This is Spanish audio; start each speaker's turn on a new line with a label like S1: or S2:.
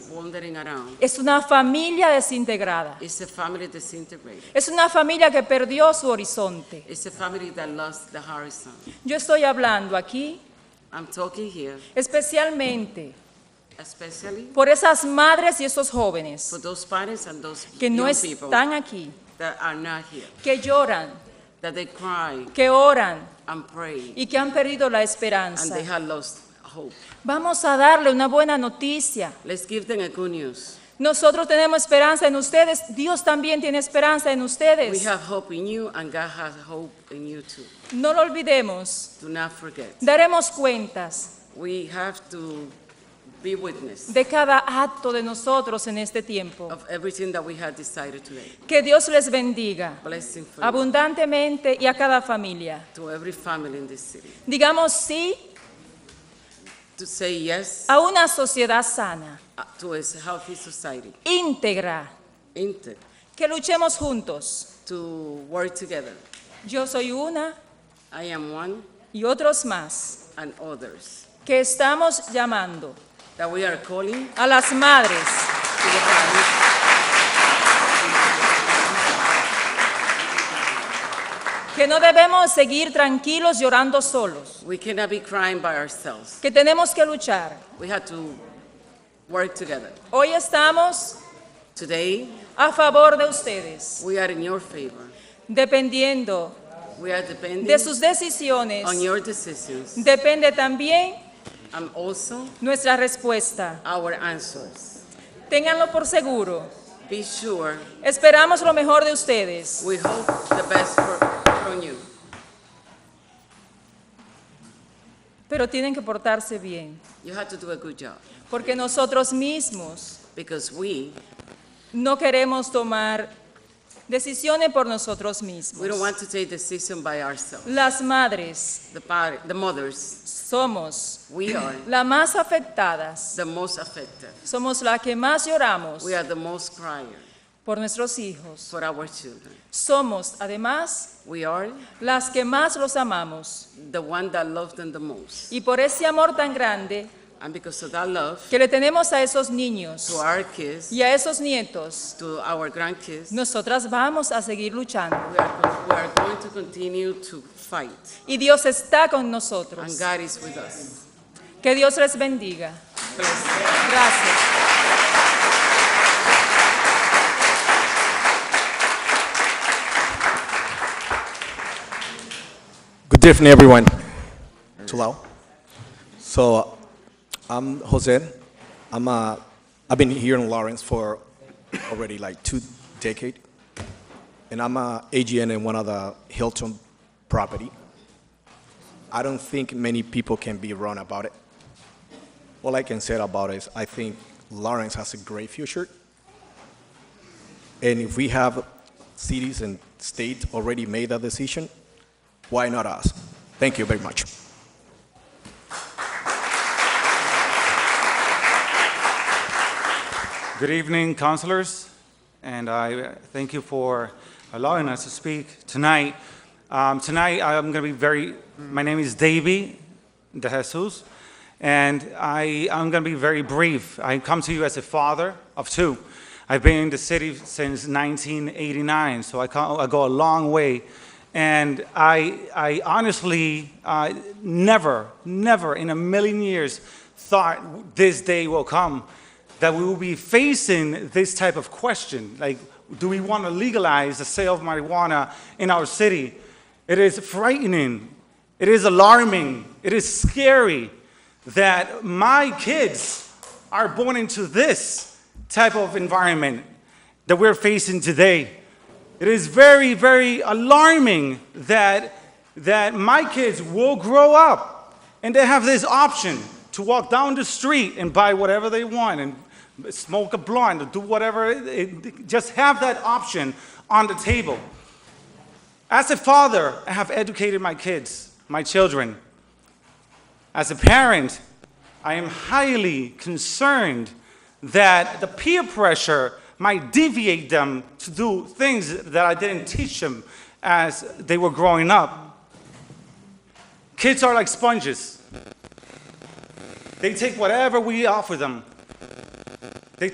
S1: wandering around.
S2: Es una familia desintegrada.
S1: It's a family disintegrated.
S2: Es una familia que perdió su horizonte.
S1: It's a family that lost the horizon.
S2: Yo estoy hablando aquí
S1: I'm talking here
S2: especialmente
S1: especially
S2: por esas madres y esos
S1: for
S2: jóvenes
S1: those parents and those
S2: que no
S1: young people
S2: están aquí,
S1: that are not here,
S2: que lloran,
S1: that they cry
S2: que oran
S1: and pray
S2: y que han perdido la
S1: and
S2: esperanza.
S1: they have lost hope.
S2: Vamos a darle una buena noticia.
S1: Let's give them a good news.
S2: Nosotros tenemos esperanza en ustedes. Dios también tiene esperanza en
S1: We
S2: ustedes.
S1: have hope in you and God has hope in you too.
S2: No lo olvidemos.
S1: Do not forget.
S2: Daremos cuentas
S1: We have to be witness
S2: de cada acto de nosotros en este tiempo.
S1: of everything that we have decided today.
S2: Que Dios les bendiga
S1: Blessing for you,
S2: abundantemente y a cada familia.
S1: to every family in this city.
S2: Digamos sí
S1: To say yes
S2: a una sociedad sana,
S1: uh, to a healthy society,
S2: íntegra,
S1: inter,
S2: que luchemos juntos.
S1: to work together.
S2: Yo soy una
S1: I am one
S2: y otros más
S1: and others.
S2: que estamos llamando
S1: That we are calling
S2: a las madres,
S1: to the parents,
S2: que no debemos seguir tranquilos llorando solos,
S1: we cannot be crying by ourselves.
S2: que tenemos que luchar.
S1: We have to work together.
S2: Hoy estamos
S1: Today,
S2: a favor de ustedes,
S1: we are in your favor.
S2: dependiendo
S1: We are depending
S2: de sus decisiones,
S1: on your decisions
S2: depende también
S1: and also
S2: nuestra respuesta.
S1: our answers.
S2: Ténganlo por seguro.
S1: Be sure
S2: Esperamos lo mejor de ustedes.
S1: we hope the best for, from you,
S2: Pero tienen que portarse bien.
S1: you have to do a good job
S2: Porque nosotros mismos
S1: because we
S2: no queremos tomar decisiones por nosotros mismos.
S1: we don't want to take decision by ourselves.
S2: Las madres
S1: The par- the mothers,
S2: somos
S1: we are
S2: las más afectadas.
S1: the most affected.
S2: Somos las que más lloramos
S1: We are the most crying
S2: por nuestros hijos.
S1: for our children.
S2: Somos, además,
S1: We are
S2: las que más los amamos.
S1: the one that love them the most.
S2: Y por ese amor tan grande
S1: And because of that love
S2: que le tenemos a esos
S1: to
S2: niños
S1: our kids,
S2: y a esos nietos,
S1: to our grandkids,
S2: Nosotras vamos a seguir luchando
S1: we are, con- we are going to continue to fight.
S2: y Dios está con
S1: And
S2: nosotros.
S1: God is with us.
S2: Que Dios les bendiga.
S1: Bless you.
S2: Gracias.
S3: Good evening, everyone. Too loud. So, I'm Jose. I'm uh, I've been here in Lawrence for already like two decades, and I'm a AGN in one of the Hilton property. I don't think many people can be wrong about it. All I can say about it is I think Lawrence has a great future, and if we have cities and states already made that decision, why not us? Thank you very much.
S4: Good evening, councilors, and I thank you for allowing us to speak tonight. Um, Tonight, I'm going to be very, my name is Davey De Jesus, and I, I'm going to be very brief. I come to you as a father of two. I've been in the city since 1989, so I co- I go a long way. And I, I honestly uh, never, never in a million years thought this day will come that we will be facing this type of question like do we want to legalize the sale of marijuana in our city it is frightening it is alarming it is scary that my kids are born into this type of environment that we're facing today it is very very alarming that that my kids will grow up and they have this option to walk down the street and buy whatever they want and smoke a blunt or do whatever it- it- just have that option on the table as a father i have educated my kids my children as a parent, I am highly concerned that the peer pressure might deviate them to do things that I didn't teach them as they were growing up. Kids are like sponges, they take whatever we offer them.